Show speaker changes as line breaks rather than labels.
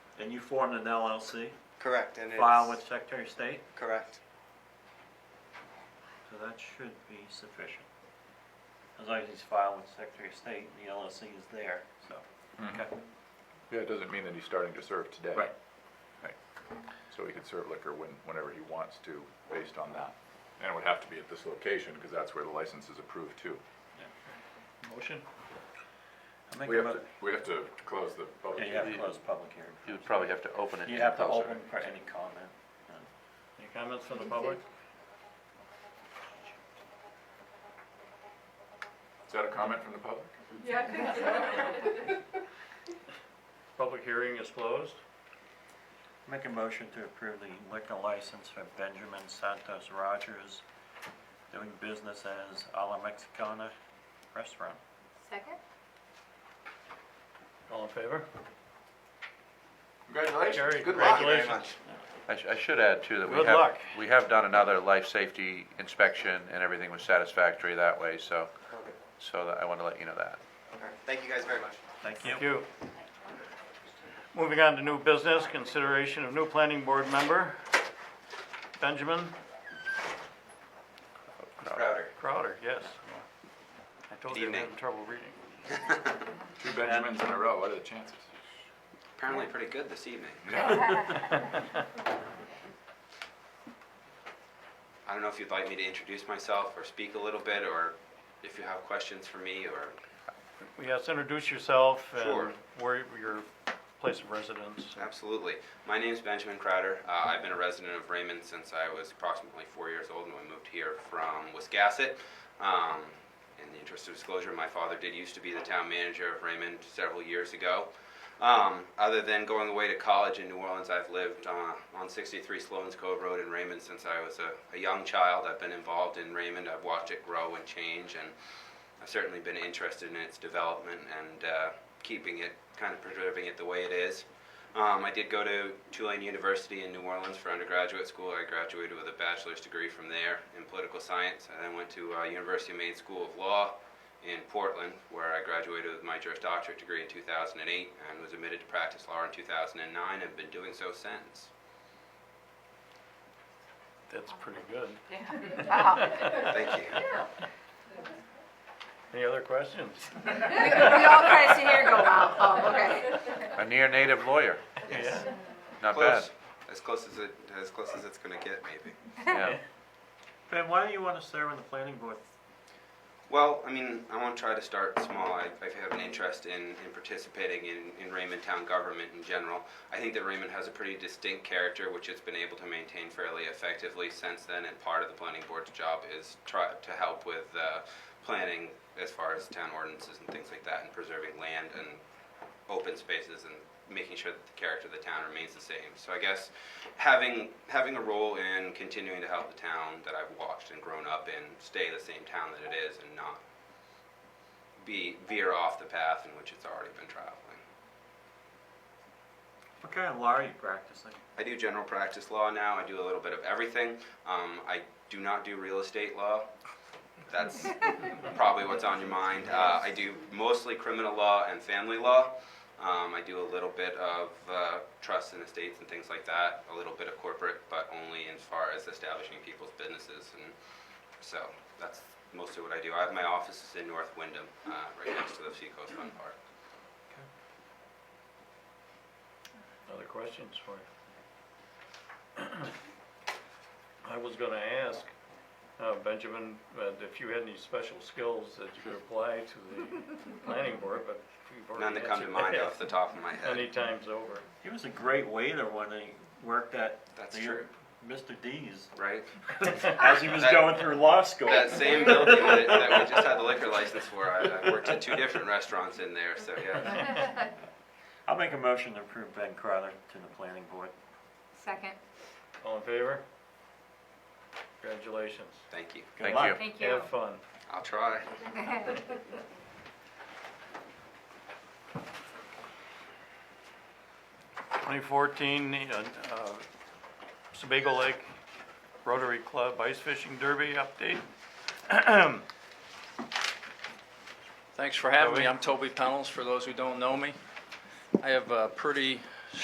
And you formed an LLC,
Correct, and
filed
it's,
with Secretary of State,
correct.
so that should be sufficient. As long as he's filed with Secretary of State, the LLC is there, so.
Mm-hmm.
Okay.
Yeah, it doesn't mean that he's starting to serve today.
Right.
Right. So he could serve liquor when, whenever he wants to, based on that. And it would have to be at this location, because that's where the license is approved too.
Motion? I make
We
a
have
mo-
to, we have to close the public
yeah, you have
hearing.
to close public hearing.
You would probably have to open it.
You
and
have to
close it.
open for any comment. Any comments from the public?
Is that a comment from the public?
Yeah,
Public hearing is closed. Make a motion to approve the liquor license for Benjamin Santos Rogers doing business as A La Mexicana Restaurant.
Second?
All in favor? Jerry,
Congratulations, good luck.
Thank you very much.
I sh- I should add too that we
Good
have,
luck.
we have done another life safety inspection and everything was satisfactory that way, so,
Okay.
so that- I want to let you know that.
All right, Thank you guys very much.
Thank you.
Thank you. Moving on to new business, consideration of new planning board member, Benjamin
Crowder.
Crowder, yes. I told you I'm
Good
having
evening.
trouble reading.
Um,
Two Benjamins in a row, what are the chances?
Apparently pretty good this evening. I don't know if you'd like me to introduce myself or speak a little bit, or if you have questions for me, or,
Yes, introduce yourself
Sure.
and where your place of residence.
absolutely. My name's Benjamin Crowder. Uh, I've been a resident of Raymond since I was approximately four years old, and we moved here from Wiscasset. Um, in the interest of disclosure, my father did used to be the town manager of Raymond several years ago. Um, other than going away to college in New Orleans, I've lived uh, on 63 Sloan's Cove Road in Raymond since I was a, a young child. I've been involved in Raymond. I've watched it grow and change, and I've certainly been interested in its development and uh, keeping it, kind of preserving it the way it is. Um, I did go to Tulane University in New Orleans for undergraduate school. I graduated with a bachelor's degree from there in political science. I then went to uh, University of Maine School of Law in Portland, where I graduated with my Juris Doctorate degree in 2008 and was admitted to practice law in 2009 and have been doing so since.
That's pretty good.
Thank you.
Any other questions?
We all kind of sit here and go, wow, oh, okay.
A near native lawyer,
Yes.
not bad.
Close. As close as it, as close as it's going to get, maybe.
Yeah.
Ben, why do you want to serve on the planning board?
Well, I mean, I want to try to start small. I, I have an interest in, in participating in, in Raymond town government in general. I think that Raymond has a pretty distinct character, which it's been able to maintain fairly effectively since then. And part of the planning board's job is try to help with uh, planning as far as town ordinances and things like that, and preserving land and open spaces and making sure that the character of the town remains the same. So I guess having having a role in continuing to help the town that I've watched and grown up in stay the same town that it is and not be veer off the path in which it's already been traveling.
What kind of law are you practicing?
I do general practice law now. I do a little bit of everything. Um, I do not do real estate law. That's probably what's on your mind. Uh, I do mostly criminal law and family law. Um, I do a little bit of uh, trusts and estates and things like that. A little bit of corporate, but only as far as establishing people's businesses. And so that's mostly what I do. I have my offices in North Wyndham, uh, right next to the Seacoast Fun Park.
Other questions for you? I was gonna ask, uh, Benjamin, uh, if you had any special skills that you could apply to the planning board, but you've
None
already
that come to
answered
mind
that
off the top of my head.
Many times over.
He was a great waiter when he worked at
That's
the-
true.
Mr. D's
Right?
as he was going through law school.
That same building that, that we just had the liquor license for, I, I worked at two different restaurants in there, so yeah.
I'll make a motion to approve Ben Crowder to the planning board.
Second,
All in favor? Congratulations.
Thank you.
Good
Thank
luck.
you.
thank you.
Have fun.
I'll try.
Twenty fourteen, uh, Sebago Lake Rotary Club Ice Fishing Derby update.
Thanks for having me.
Toby.
I'm Toby Pennels, for those who don't know me. I have a pretty